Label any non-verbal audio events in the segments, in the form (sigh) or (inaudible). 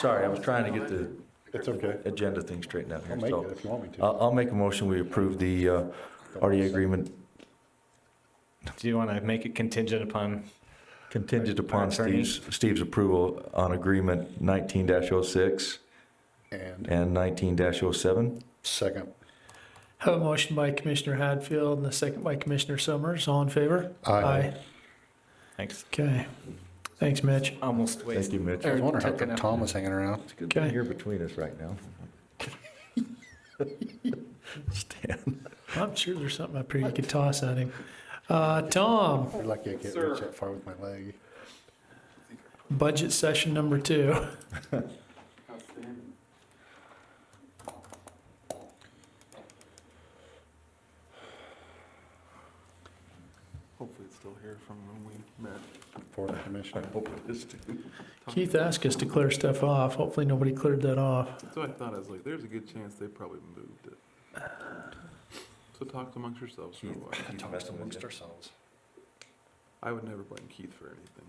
Sorry, I was trying to get the It's okay. agenda thing straightened out here, I'll make so. uh, it if you want me to. I'll, I'll make a motion, we approve the, uh, RDA agreement Do you want to make it contingent upon? contingent upon Attorney. Steve's, Steve's approval on agreement nineteen 6 And and nineteen oh 7 second, Have a motion by Commissioner Hadfield and a second by Commissioner Summers. All in favor? Aye. Thanks. Okay. Thanks, Mitch. Almost Thank wasted. you, Mitch. I was wondering how Tucking come up. Tom was hanging around. It's good that Okay. you're between us right now. Stan, I'm sure there's something up here you could toss at him. Uh, Tom, You're lucky I can't reach that far with my leg. budget session number two. Hopefully it's still here from when we met. For the commissioner. hope it is too. Keith asked us to clear stuff off. Hopefully nobody cleared that off. So I thought, I was like, there's a good chance they probably moved it. So talk amongst yourselves for a while. ourselves. I would never blame Keith for anything.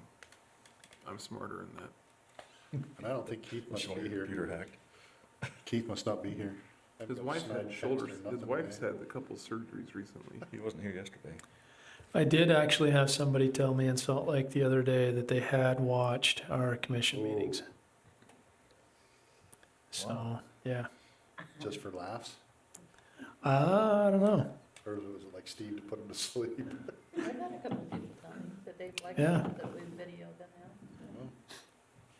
I'm smarter than that. And I don't think Keith must be here. hacked. Keith must not be here. I've His got wife snide had checks shoulders, or his nothing wife's today. had a couple surgeries recently. He wasn't here yesterday. I did actually have somebody tell me in Salt Lake the other day that they had watched our commission meetings. So, yeah. Just for laughs? I don't know. Or was it like Steve to put him to sleep? (laughs) I've had a couple people tell me that they'd like Yeah. that we videoed them out.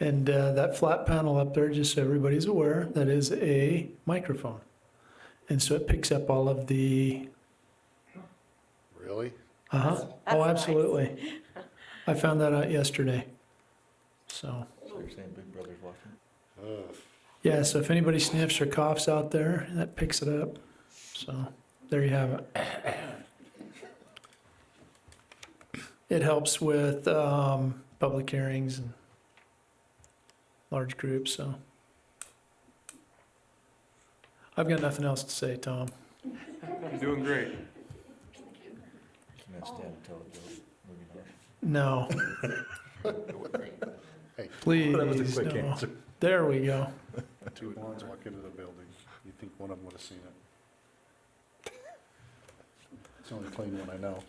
And uh, that flat panel up there, just so everybody's aware, that is a microphone. And so it picks up all of the, Really? uh-huh, That's oh, nice. absolutely. I found that out yesterday. So, So you're saying Big Brother's watching? Ugh. yeah, so if anybody sniffs or coughs out there, that picks it up. So, there you have it. It helps with um, public hearings and large groups, so. I've got nothing else to say, Tom. You're doing great. Can I stand and tell a joke? Maybe not. No, Hey, (laughs) please, That was a quick no. answer. There we go. two blondes walk into the building. you think one of them would have seen it. It's the only clean one I know.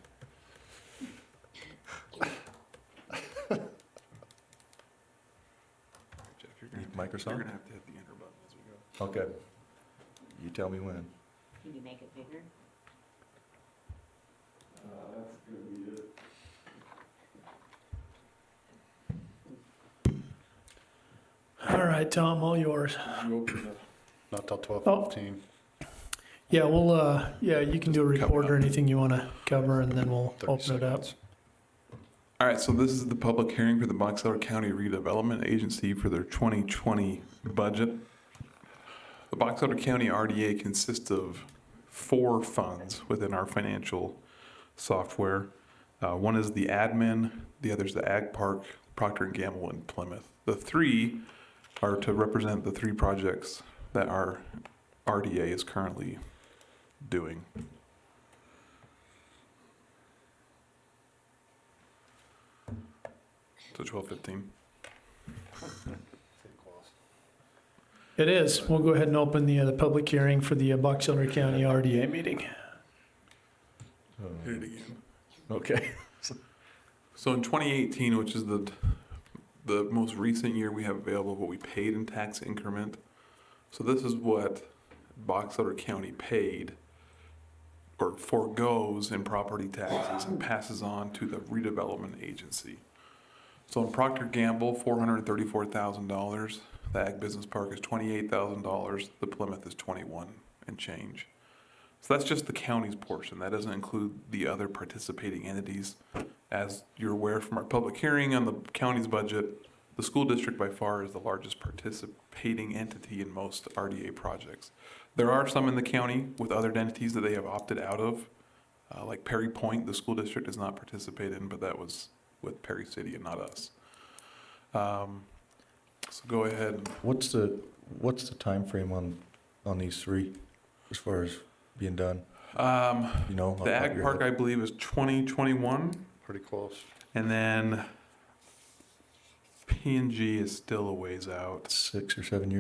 Jeff, you're gonna, Need have to- you're Microsoft? gonna have to hit the enter button as we go. Okay. You tell me when. Can you make it bigger? All right, Tom, all yours. Not till twelve Oh. fifteen. Yeah, well, uh, yeah, you can do a report or anything you want to cover, and then we'll 30 open it up. seconds. All right, so this is the public hearing for the Box Elder County Redevelopment Agency for their 2020 budget. The Box Elder County RDA consists of four funds within our financial software. Uh, One is the admin, the other is the Ag Park, Procter and Gamble, and Plymouth. The three are to represent the three projects that our RDA is currently doing. So 1215. Oh. It is. We'll go ahead and open the, uh, the public hearing for the uh, Box Elder County RDA meeting. Hit it again. Okay. So in 2018, which is the the most recent year we have available, what we paid in tax increment. So this is what Box Elder County paid or foregoes in property taxes and passes on to the redevelopment agency. So in Procter Gamble, four hundred thirty-four thousand dollars. The Ag Business Park is twenty-eight thousand dollars. The Plymouth is twenty-one and change. So that's just the county's portion. That doesn't include the other participating entities. As you're aware from our public hearing on the county's budget, the school district by far is the largest participating entity in most RDA projects. There are some in the county with other entities that they have opted out of, uh, like Perry Point, the school district does not participate in, but that was with Perry City and not us. Um, So go ahead and What's the, what's the timeframe on, on these three as far as being done? Um, You know? off the top of Ag your Park, head? I believe, is 2021, Pretty close. and then PNG is still a ways out. six or seven years